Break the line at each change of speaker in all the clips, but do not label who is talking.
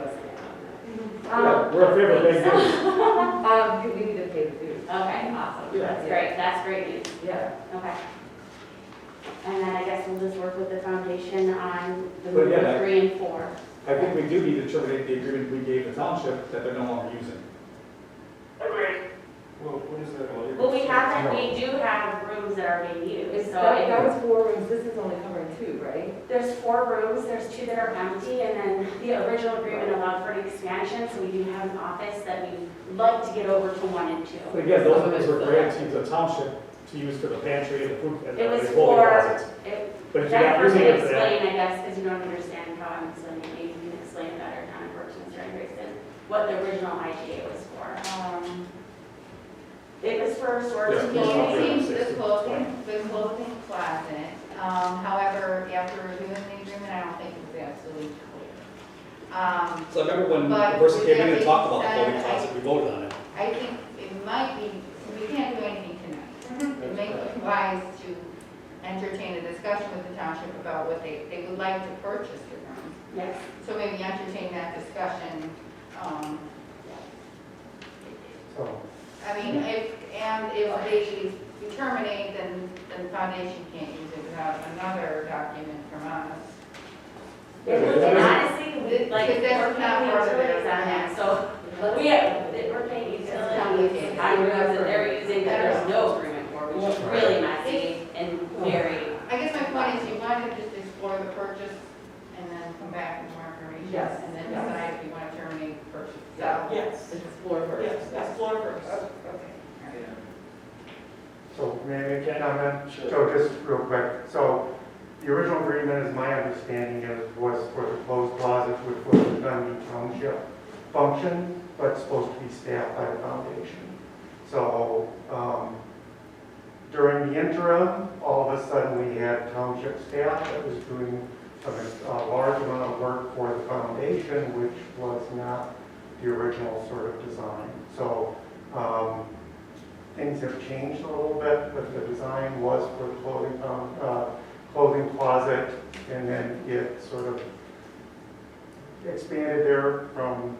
Um,
We're a favorite big dude.
Um, you- we need to pay the dues.
Okay, awesome,
Yeah.
that's great, that's great news,
Yeah,
okay. And then I guess we'll just work with the foundation on the
But yeah, that-
number three and four.
I think we do need to terminate the agreement we gave the township that they're no longer using.
Well, what is that?
Well, we have that, we do have rooms that are being used,
It's-
so
that, that
I-
was four rooms, this is only covering two, right?
there's four rooms, there's two that are empty, and then the original agreement allowed for an expansion, so we do have an office that we'd like to get over to one and two.
But again, those rooms were granted to the township to use for the pantry and the food and
It was
the holding
for-
closets.
It-
But if you're
That
not
person
using
can
it for that,
explain, I guess, because you don't understand how I'm explaining, maybe you can explain it better, kind of works, Mr. Anderson, what the original IGA was for.
Um,
It was for sort
Yeah,
The
of
it's not
community.
closing, the
360,
closing, the closing closet, um, however, after reviewing the agreement, I don't think it's absolutely clear. Um,
So I remember when the
But
person came in
we
and talked about the voting
definitely said-
closet, we voted on it.
I think it might be, we can't do anything
Mm-hmm.
tonight. It may be wise to entertain a discussion with the township about what they, they would like to purchase the rooms.
Yes,
So maybe entertain that discussion, um,
So,
I mean, if, and if they terminate, then, then the foundation can't use it without another document from us.
it was, and honestly, we,
This-
like,
this is
we're
not
paying
part of
utilities on
it.
that, so,
Let's-
we have, we're paying utilities on rooms that they're using that there's no agreement for, which is really messy and very,
I guess my point is you might have just explore the purchase and then come back with more information.
Yes,
And then
yes.
decide if you want to terminate the purchase.
Yeah.
Yes,
It's floor first.
yes, that's floor
Oh,
first.
Okay.
so may I make a comment?
Sure.
So just real quick, so the original agreement, as my understanding is, was for the closed closet, which was the Dundee Township function, but supposed to be staffed by the foundation. So um, during the interim, all of a sudden, we had township staff that was doing a a large amount of work for the foundation, which was not the original sort of design. So um, things have changed a little bit, but the design was for clothing, um, uh, clothing closet, and then it sort of expanded there from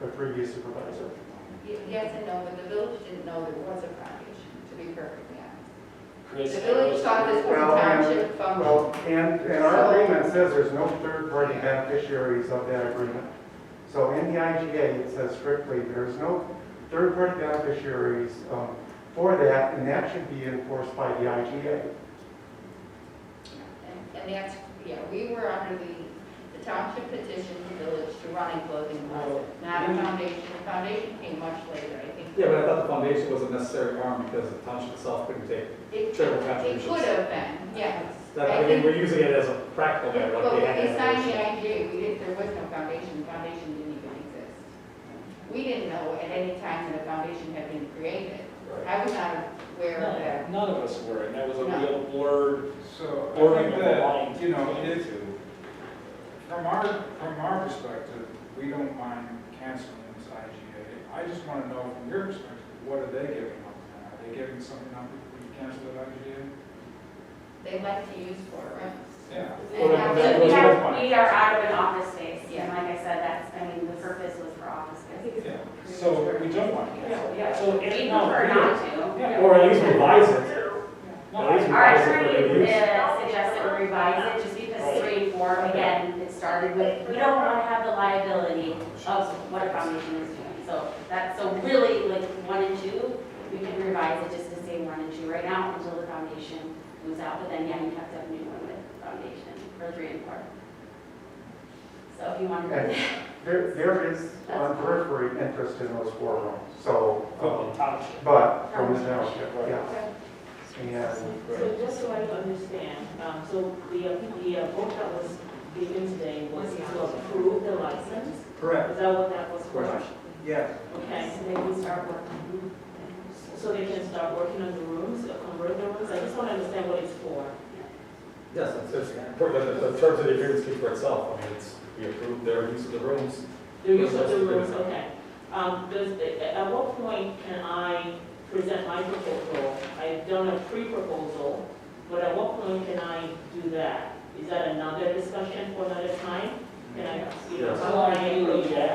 the previous supervisor.
Y- Yes and no, but the village didn't know there was a foundation, to be perfectly honest.
Chris,
The village thought this was a
Well, and-
township function.
Well, and, and our agreement says there's no third-party beneficiaries of that agreement. So in the IGA, it says strictly, there's no third-party beneficiaries um, for that, and that should be enforced by the IGA.
And- And that's, yeah, we were under the, the township petitioned the village to run a clothing closet, not a foundation. The foundation came much later, I think.
yeah, but I thought the foundation was a necessary arm because the township itself couldn't take it.
It
charitable
it
contributions.
could have been, yes.
That, I mean, we're using it as a practical matter, like
But
they
when
had.
they
that
signed the
relation.
IGA, we didn't, there was no foundation, the foundation didn't even exist. We didn't know at any time that a foundation had been created.
Right.
I was not aware of that.
No, None of us were, and that was a
No.
real blurred
So I
blurring
think
of the
that,
line.
you know,
between the
it's,
two.
from our, from our perspective, we don't mind canceling this IGA. I just want to know from your perspective, what are they giving up now? Are they giving something up if we cancel that IGA?
They like to use for rooms.
Yeah.
and
Well, that
that's, we
was
have,
one.
we are out of an office space,
Yeah.
and like I said, that's, I mean, the purpose was for office
I
space.
think
Yeah.
it's.
So we don't want to cancel.
Yeah.
So
We
if not,
prefer
we're-
not to.
Yeah.
Or at least revise it.
no,
At least
Our
revise it for
attorney
their use.
uh, suggested we revise it just because three and four, again, it started with, we don't want to have the liability of what a foundation is doing. So that, so really, like, one and two, we can revise it just to say one and two right now until the foundation moves out. But then, yeah, you have to have a new one with foundation for three and four. So if you want
And
to,
there, there is on periphery interest in those four rooms, so,
From the
um,
township.
but from the township, yeah. And
So just so I understand, um, so the, uh, the uh, vote that was given today was to approve the license?
Correct.
Is that what that was for?
Correct.
Yes.
Okay,
so they can start working.
so they can start working on the rooms, uh, convert the rooms, I just want to understand what it's for.
Yes, it's, it's, important that the terms of the agreement speak for itself. I mean, it's, we approved their use of the rooms.
The use of the rooms, okay. Um, does, at what point can I present my proposal? I've done a pre-proposal, but at what point can I do that? Is that another discussion for another time? Can I, you know,
Yes.
how I agree?